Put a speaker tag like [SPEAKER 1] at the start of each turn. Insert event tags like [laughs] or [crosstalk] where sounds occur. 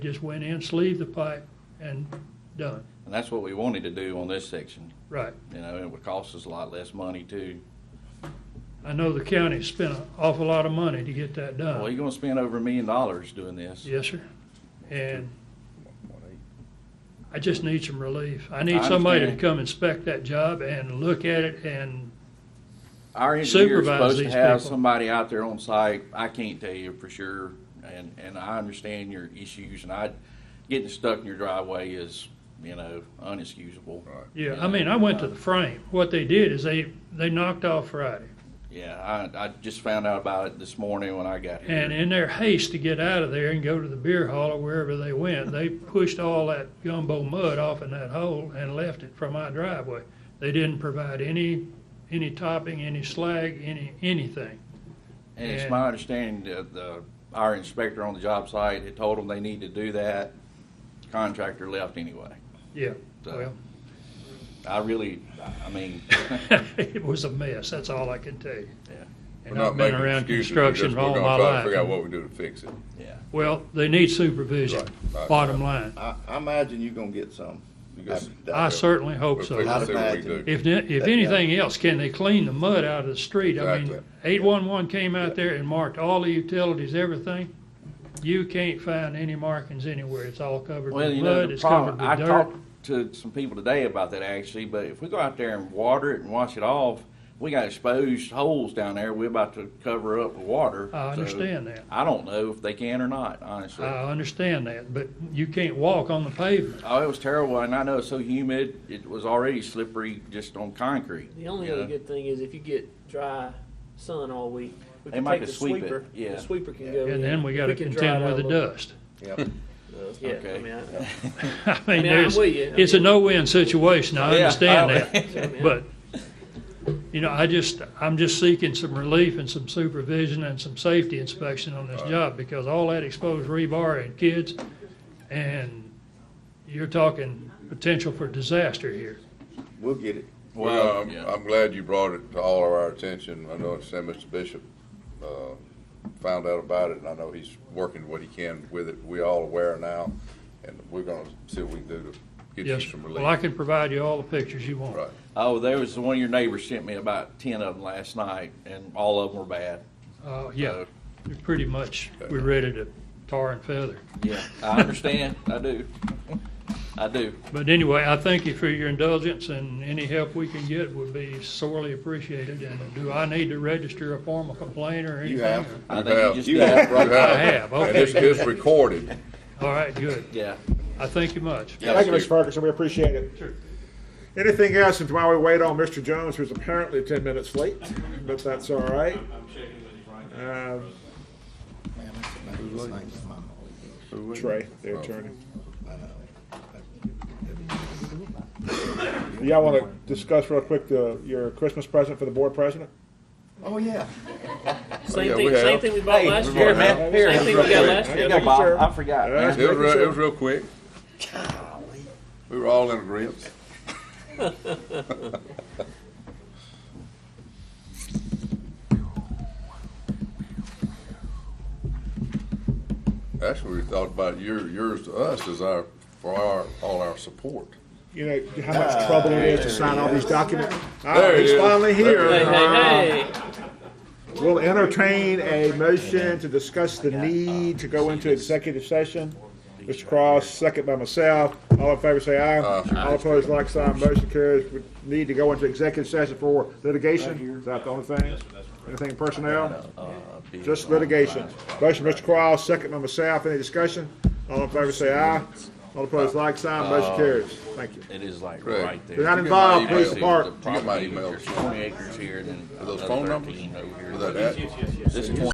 [SPEAKER 1] Just went in, sleeved the pipe, and done.
[SPEAKER 2] And that's what we wanted to do on this section,
[SPEAKER 1] Right.
[SPEAKER 2] you know, and it would cost us a lot less money too.
[SPEAKER 1] I know the county spent an awful lot of money to get that
[SPEAKER 2] Well,
[SPEAKER 1] done.
[SPEAKER 2] you're gonna spend over a million dollars doing this.
[SPEAKER 1] Yes, sir. And I just need some relief. I need somebody to
[SPEAKER 2] understand.
[SPEAKER 1] come inspect that job and look at it and,
[SPEAKER 2] Our engineer's
[SPEAKER 1] Supervise
[SPEAKER 2] supposed to
[SPEAKER 1] these
[SPEAKER 2] have
[SPEAKER 1] people.
[SPEAKER 2] somebody out there on site, I can't tell you for sure, and, and I understand your issues, and I, getting stuck in your driveway is, you know, unexcusable. uh,
[SPEAKER 1] yeah, I mean, I went to the frame. What they did is they, they knocked off Friday.
[SPEAKER 2] Yeah, I, I just found out about it this morning when I got here.
[SPEAKER 1] And in their haste to get out of there and go to the beer hall or wherever they went, they pushed all that gumbo mud off in that hole and left it for my driveway. They didn't provide any, any topping, any slag, any, anything.
[SPEAKER 2] And it's
[SPEAKER 1] And-
[SPEAKER 2] my understanding that the, our inspector on the job site had told them they need to do that. Contractor left anyway.
[SPEAKER 1] Yeah,
[SPEAKER 2] So-
[SPEAKER 1] well,
[SPEAKER 2] I really, I
[SPEAKER 3] [laughs]
[SPEAKER 2] mean,
[SPEAKER 1] [laughs] it was a mess, that's all I can tell you.
[SPEAKER 2] Yeah.
[SPEAKER 1] And I've been around construction all my
[SPEAKER 4] Figure
[SPEAKER 1] life.
[SPEAKER 4] out what we do to fix it.
[SPEAKER 2] yeah.
[SPEAKER 1] Well, they need supervision,
[SPEAKER 4] Right, right,
[SPEAKER 1] bottom line.
[SPEAKER 5] I, I imagine you're gonna get some.
[SPEAKER 4] You guys-
[SPEAKER 1] I certainly hope
[SPEAKER 4] We'll figure
[SPEAKER 5] Not
[SPEAKER 1] so.
[SPEAKER 5] a-
[SPEAKER 4] out what we do.
[SPEAKER 1] If, ne- if
[SPEAKER 5] That- yeah.
[SPEAKER 1] anything else, can they clean the mud out of the street? I mean,
[SPEAKER 4] Exactly.
[SPEAKER 1] eight-one-one came out there and marked all the utilities, everything. You can't find any markings anywhere. It's all covered
[SPEAKER 2] Well,
[SPEAKER 1] with
[SPEAKER 2] you know,
[SPEAKER 1] mud,
[SPEAKER 2] the
[SPEAKER 1] it's covered
[SPEAKER 2] problem, I
[SPEAKER 1] with dirt.
[SPEAKER 2] talked to some people today about that actually, but if we go out there and water it and wash it off, we got exposed holes down there, we're about to cover up with water.
[SPEAKER 1] I
[SPEAKER 2] so
[SPEAKER 1] understand that. Uh,
[SPEAKER 2] I don't know if they can or not, honestly.
[SPEAKER 1] I understand that, but you can't walk on the pavement.
[SPEAKER 2] Oh, it was terrible, and I know it's so humid, it was already slippery just on concrete.
[SPEAKER 3] The only
[SPEAKER 2] you
[SPEAKER 3] other
[SPEAKER 2] know?
[SPEAKER 3] good thing is if you get dry sun all week, we
[SPEAKER 2] They
[SPEAKER 3] can
[SPEAKER 2] might
[SPEAKER 3] take the
[SPEAKER 2] could sweep it,
[SPEAKER 3] sweeper.
[SPEAKER 2] yeah.
[SPEAKER 3] The sweeper can go in.
[SPEAKER 1] And then we gotta
[SPEAKER 3] can dry
[SPEAKER 1] contend
[SPEAKER 3] it out
[SPEAKER 1] with the
[SPEAKER 3] a little.
[SPEAKER 1] dust.
[SPEAKER 3] Yeah,
[SPEAKER 2] Okay.
[SPEAKER 3] I mean, I-
[SPEAKER 1] I mean,
[SPEAKER 3] mean, I'm
[SPEAKER 1] there's,
[SPEAKER 3] with you.
[SPEAKER 1] it's a no-win situation, I
[SPEAKER 2] Yeah,
[SPEAKER 1] understand
[SPEAKER 2] I-
[SPEAKER 1] that. But, you know, I just, I'm just seeking some relief and some supervision and some safety inspection on this job because all that exposed rebar and kids, and you're talking potential for disaster here.
[SPEAKER 5] We'll get it.
[SPEAKER 2] Well,
[SPEAKER 4] Well, I'm,
[SPEAKER 2] yeah.
[SPEAKER 4] Um, I'm glad you brought it to all of our attention. I know it's said Mr. Bishop, uh, found out about it and I know he's working what he can with it. We all aware now and we're gonna see what we can do to get
[SPEAKER 1] Yes,
[SPEAKER 4] you
[SPEAKER 1] sir.
[SPEAKER 4] some
[SPEAKER 1] well, I
[SPEAKER 4] relief.
[SPEAKER 1] can provide you all the pictures you want.
[SPEAKER 4] Right.
[SPEAKER 2] Oh, there was one of your neighbors sent me about ten of them last night, and all of them were bad.
[SPEAKER 1] Uh, yeah,
[SPEAKER 2] So-
[SPEAKER 1] you're pretty much, we're ready to tar and feather.
[SPEAKER 2] Yeah, I understand. I do. I do.
[SPEAKER 1] But anyway, I thank you for your indulgence, and any help we can get would be sorely appreciated. And do I need to register a formal complaint or anything?
[SPEAKER 5] You have.
[SPEAKER 2] I
[SPEAKER 4] You
[SPEAKER 2] think you
[SPEAKER 4] have-
[SPEAKER 2] just
[SPEAKER 4] you
[SPEAKER 2] did it.
[SPEAKER 4] have-
[SPEAKER 1] [laughs]
[SPEAKER 4] you
[SPEAKER 1] I have,
[SPEAKER 4] And it's,
[SPEAKER 1] okay.
[SPEAKER 4] it's recorded.
[SPEAKER 1] All right, good.
[SPEAKER 2] Yeah.
[SPEAKER 1] I thank you much.
[SPEAKER 6] Thank you, Mr. Ferguson, we appreciate it. Anything else, and while we wait on Mr. Jones, who's apparently ten minutes late, but that's all right. Uh, Trey, the attorney. Y'all wanna discuss real quick the, your Christmas present for the board president?
[SPEAKER 5] Oh, yeah.
[SPEAKER 3] same
[SPEAKER 4] yeah,
[SPEAKER 3] thing.
[SPEAKER 4] we have-
[SPEAKER 3] Same thing we bought
[SPEAKER 2] Hey,
[SPEAKER 3] last
[SPEAKER 4] we
[SPEAKER 3] year.
[SPEAKER 4] bought that.
[SPEAKER 2] Man, here.
[SPEAKER 3] Same thing we got last
[SPEAKER 2] Here you
[SPEAKER 3] year.
[SPEAKER 2] go,
[SPEAKER 6] Thank you, sir.
[SPEAKER 2] Bob. I forgot.
[SPEAKER 6] Yeah,
[SPEAKER 2] man.
[SPEAKER 4] It was, real- it was real quick. We were all in agreement. Actually, we thought about your, yours to us is our, for our, all our support.
[SPEAKER 6] You know, how much trouble it is to sign all these documents? Ah,
[SPEAKER 4] There he
[SPEAKER 6] he's
[SPEAKER 4] is.
[SPEAKER 6] finally here.
[SPEAKER 3] Hey, hey, hey.
[SPEAKER 6] We'll entertain a motion to discuss the need to go into executive session. Mr. Cross, second by myself. All in favor, say aye. All opposed, like sign, motion carries. We need to go into executive session for litigation. Is that the only thing? Anything personnel?
[SPEAKER 2] Uh,
[SPEAKER 6] Just litigation. Motion, Mr. Cross, second by myself. Any discussion? All in favor, say aye. All opposed, like sign, motion carries. Thank you.
[SPEAKER 2] It is like
[SPEAKER 4] Right.
[SPEAKER 2] right there.
[SPEAKER 6] We're not
[SPEAKER 4] You get
[SPEAKER 6] involved,
[SPEAKER 4] my email.
[SPEAKER 6] please depart.
[SPEAKER 4] You get my email.
[SPEAKER 2] There's 20 acres here and then
[SPEAKER 4] those
[SPEAKER 2] another
[SPEAKER 4] phone numbers?
[SPEAKER 2] 13 over here.
[SPEAKER 4] With that ad?
[SPEAKER 2] This is 20